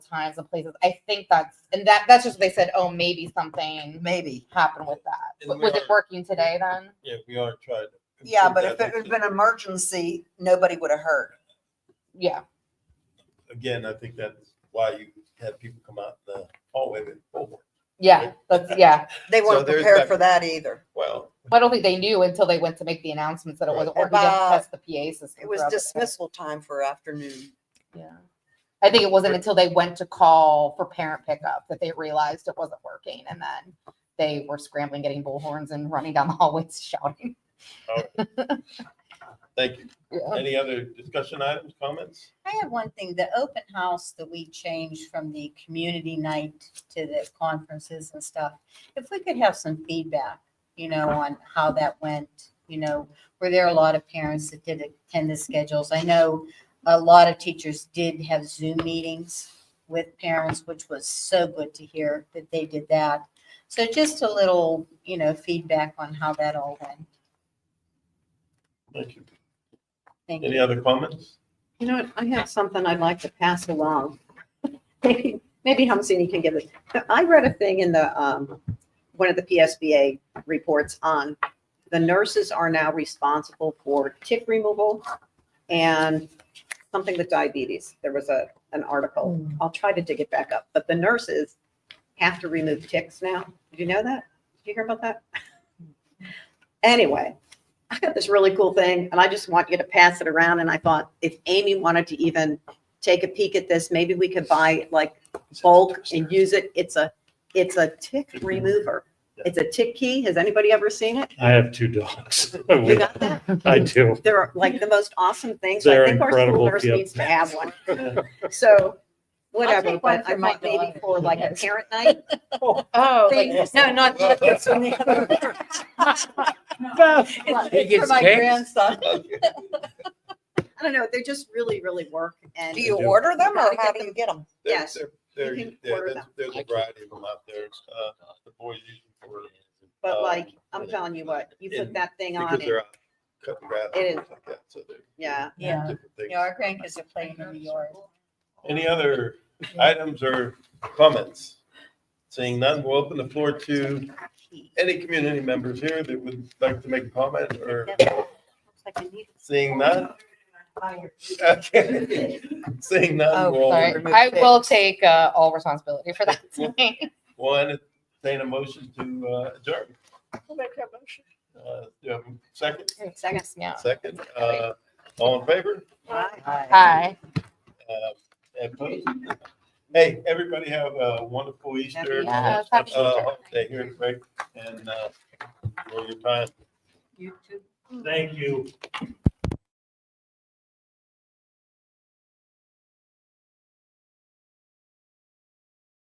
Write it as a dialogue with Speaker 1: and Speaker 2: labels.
Speaker 1: times and places. I think that's and that that's just what they said. Oh, maybe something
Speaker 2: maybe.
Speaker 1: happened with that.
Speaker 3: And
Speaker 1: W-
Speaker 3: we
Speaker 1: Was it
Speaker 3: are-
Speaker 1: working today then?
Speaker 3: Yeah, we are trying. to
Speaker 2: Yeah,
Speaker 3: improve
Speaker 2: but if
Speaker 3: that.
Speaker 2: it had been emergency, nobody would have heard.
Speaker 1: Yeah.
Speaker 3: Again, I think that's why you have people come out the hallway oh, with bullhorn.
Speaker 1: Yeah. That's yeah.
Speaker 2: They weren't
Speaker 3: there's
Speaker 2: prepared
Speaker 3: that-
Speaker 2: for that either.
Speaker 3: Well,
Speaker 1: But I don't think they knew until they went to make the announcements that it wasn't
Speaker 3: Right.
Speaker 1: working. They had to
Speaker 2: About-
Speaker 1: test the PA system.
Speaker 2: It was
Speaker 1: throughout the day.
Speaker 2: dismissal time for afternoon.
Speaker 1: Yeah. I think it wasn't until they went to call for parent pickup that they realized it wasn't working. And then they were scrambling, getting bullhorns and running down the hallways shouting.
Speaker 3: thank you.
Speaker 1: Yeah.
Speaker 3: Any other discussion items, comments?
Speaker 4: I have one thing, the open house that we changed from the community night to the conferences and stuff. If we could have some feedback, you know, on how that went, you know, were there a lot of parents that did attend the schedules? I know a lot of teachers did have Zoom meetings with parents, which was so good to hear that they did that. So just a little, you know, feedback on how that all went.
Speaker 3: Thank you.
Speaker 4: Thank
Speaker 3: Any
Speaker 4: you.
Speaker 3: other comments?
Speaker 5: You know what, I have something I'd like to pass along. Maybe, maybe Humsey can give it. But I read a thing in the, um, one of the PSBA reports on the nurses are now responsible for tick removal and something with diabetes. There was a, an article. I'll try to dig it back up, but the nurses have to remove ticks now. Did you know that? Did you hear about that? Anyway, I got this really cool thing and I just want you to pass it around. And I thought if Amy wanted to even take a peek at this, maybe we could buy like bulk and use it. It's a, it's a tick remover. It's a tick key. Has anybody ever seen it?
Speaker 6: I have two dogs.
Speaker 5: You got that?
Speaker 6: I do.
Speaker 5: They're like the most awesome things. I
Speaker 6: They're
Speaker 5: think our school
Speaker 6: incredible,
Speaker 5: nurse
Speaker 6: yep.
Speaker 5: needs to have one. So whatever,
Speaker 4: take one
Speaker 5: but
Speaker 4: for
Speaker 5: I
Speaker 4: my
Speaker 5: thought maybe
Speaker 4: dog.
Speaker 5: for like a parent night.
Speaker 1: Oh,
Speaker 5: thing.
Speaker 4: No, not this one. the other one.
Speaker 7: He
Speaker 4: It's
Speaker 7: gets
Speaker 4: For my
Speaker 7: cakes.
Speaker 4: grandson.
Speaker 5: I don't know. They just really, really work. And
Speaker 2: Do you
Speaker 6: do.
Speaker 2: order them or
Speaker 5: Gotta
Speaker 2: how
Speaker 5: get
Speaker 2: do you get them?
Speaker 3: There-
Speaker 5: Yes.
Speaker 3: there- There,
Speaker 5: You can
Speaker 3: there-
Speaker 5: order
Speaker 3: there's,
Speaker 5: them.
Speaker 3: there's a variety of them out there. Uh, the boys use them for,
Speaker 5: But
Speaker 3: Um,
Speaker 5: like, I'm telling you what, you put
Speaker 3: and-
Speaker 5: that thing on
Speaker 3: because
Speaker 5: and,
Speaker 3: they're out cutting grass. and
Speaker 5: It is.
Speaker 3: things like that, so they're-
Speaker 5: yeah.
Speaker 4: Yeah.
Speaker 3: different things.
Speaker 4: Yeah, our grandkids are playing in the yard.
Speaker 3: Any other items or comments? Seeing none, we'll open the floor to any community members here that would like to make a comment or seeing none. Okay. Seeing none,
Speaker 1: Oh,
Speaker 3: we'll,
Speaker 1: sorry.
Speaker 2: remove
Speaker 1: I will
Speaker 2: ticks.
Speaker 1: take uh, all responsibility for that.
Speaker 3: we'll entertain a motion to uh, adjourn. Uh, do you have a Second,
Speaker 5: Second.
Speaker 1: Yeah.
Speaker 3: second, uh, all in favor?
Speaker 1: Hi.
Speaker 3: Uh, and opposed? Hey, everybody have a wonderful Easter.
Speaker 1: Yeah,
Speaker 3: Uh,
Speaker 1: happy Easter.
Speaker 3: holiday here at break and, uh, for your time.
Speaker 4: You too.
Speaker 6: Thank you.